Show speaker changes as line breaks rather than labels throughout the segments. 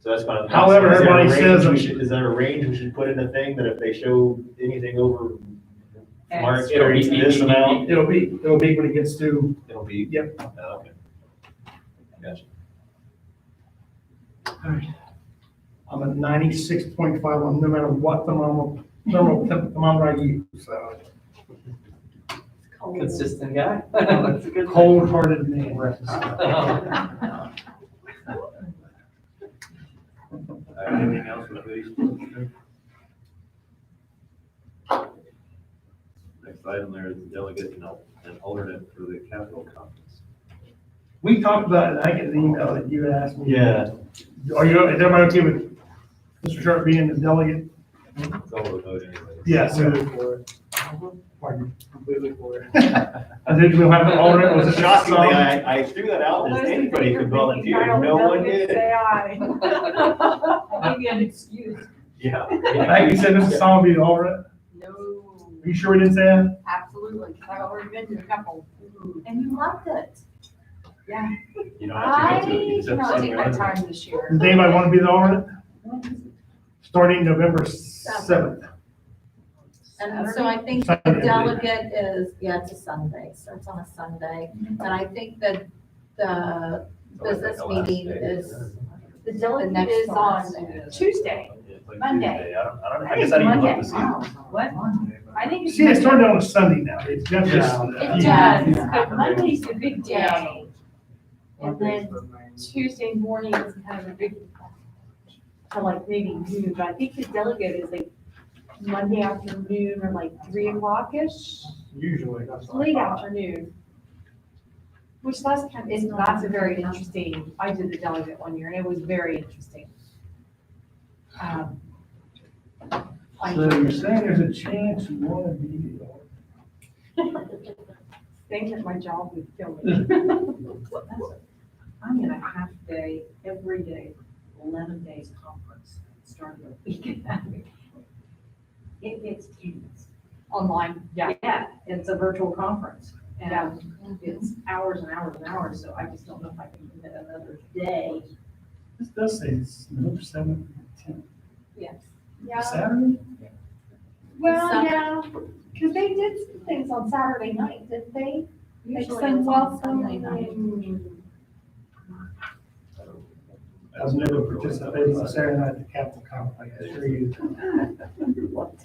So that's kind of.
However,
Is there a
everybody
range
says
we
it-
should- Is there a range we should put in the thing that if they show anything over
X.
March thirty, this amount,
It'll be, it'll be when it gets to,
it'll be?
Yep.
Oh, Okay. Gotcha.
I'm at ninety-six point five one, no matter what thermal, thermal temp- thermometer I use, so.
Consistent guy. That's a good thing.
Cold-hearted man.
Uh,
Anything else with these? Next item there is delegate and al- and alternate for the capital conference.
We talked about it, I get an email that you had asked me.
Yeah,
Are you, is everybody okay with Mr. Sharp being the delegate?
it's all the vote anyway.
Yes.
Completely for it,
Pardon.
completely for it.
I think we'll have an alternate, was
Well,
it
it's
shot
Shockingly, I, I threw that out,
Those
as
in
anybody
favor,
could
please
volunteer,
dial
no
the
one
numbers,
did.
Say aye. Maybe an excuse.
Yeah.
I think you said Mr. Song will be the alternate.
No,
Are you sure we didn't say that?
absolutely, 'cause I've already been to a couple. And you loved it.
You don't
I
have to go to it. You
did
just have to
not take my
sign your own.
time this year.
Does anybody want to be the alternate? Starting November seventh.
And so I think the delegate is, yeah, it's a Sunday, so it's on a Sunday.
Mm-hmm.
And I think that the business meeting is,
The
The
delegate
next
is
one.
on Tuesday.
It's like
Monday.
Tuesday. I don't, I don't,
I
I guess I
think it's
didn't
Monday.
look to see.
What? I think it's.
See, it started on a Sunday now. It's definitely.
It
Yeah.
does, but Monday's the big day. And then Tuesday morning is kind of a big, to like maybe noon, but I think the delegate is like Monday afternoon or like three o'clock-ish,
Usually, that's what I
late
thought.
afternoon. Which that's kind of, is, that's a very interesting, I did the delegate one year and it was very interesting. Um, I
So you're saying there's a chance you want to be the alternate?
think that my job would kill me. I'm in a half day, every day, eleven days conference, starting the weekend. It gets tense.
Online.
Yeah, yeah, it's a virtual conference and it's hours and hours and hours, so I just don't know if I can commit another day.
This does say it's November seventh, tenth,
Yes.
Saturday?
So-
Well, yeah, because they did some things on Saturday night, didn't they? Like
Usually
some
it's on Sunday
welcome
night.
and-
I've never participated in a Saturday night at the Capitol Conference, I assure you.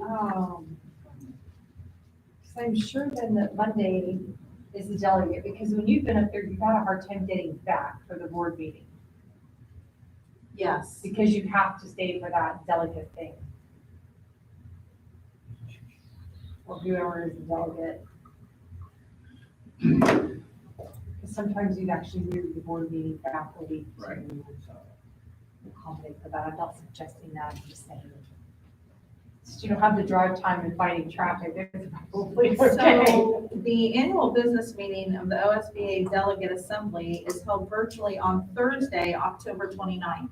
Um, So I'm sure then that Monday is the delegate, because when you've been up there, you've had a hard time getting back for the board meeting,
yes.
because you have to stay for that delegate thing. Or whoever is the delegate. Because sometimes you'd actually move the board meeting back a week to
Right.
accommodate for that. I'm not suggesting that, I'm just saying. Since you don't have the drive time and fighting traffic, it's probably okay.
So the annual business meeting of the OSBA Delegate Assembly is held virtually on Thursday, October 29th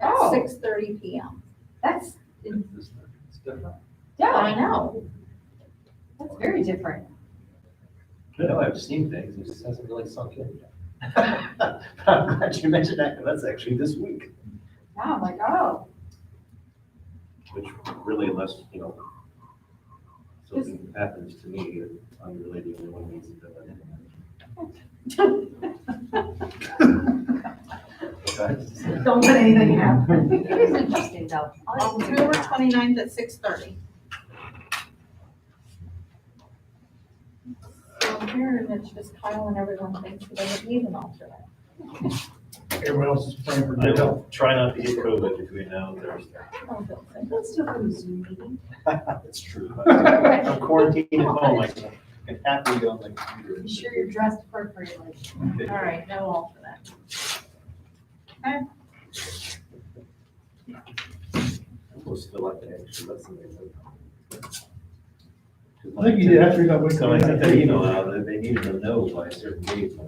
at
Oh.
6:30 PM.
That's,
It's different.
yeah,
I know.
that's very different.
I know I've seen things, it just hasn't really sunk in yet. I'm glad you mentioned that, 'cause that's actually this week,
Now I'm like, oh,
Which really unless, you know, something happens to me, I'm really the only one who needs to do it.
don't let anything happen. It is interesting though. I'll do
October
that.
29th at 6:30. So here, and it's just Kyle and everyone thinks that they would need an alternate.
Everyone else is playing for
I
Dale.
will try not to get COVID between now and Thursday.
Let's do a Zoom meeting.
That's true. I'm quarantined at home, I can happily go on my computer.
Be sure you're dressed appropriately.
All right, no alternate.
I almost feel like I actually let somebody know.
I think you did after you got with.
So I sent that email out, that they needed to know by a certain date.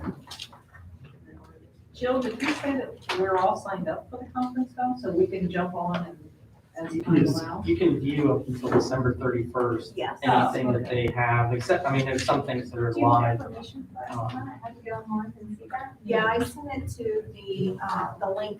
Jill, did you say that we're all signed up for the conference though, so we can jump on and as time
Yes.
allows?
You can view up until December thirty-first,
Yes.
anything that they have, except, I mean, there's some things that are
Do you have
live.
permission for us?
um,
I had to get online and see that.
Yeah, I sent it to the, uh, the link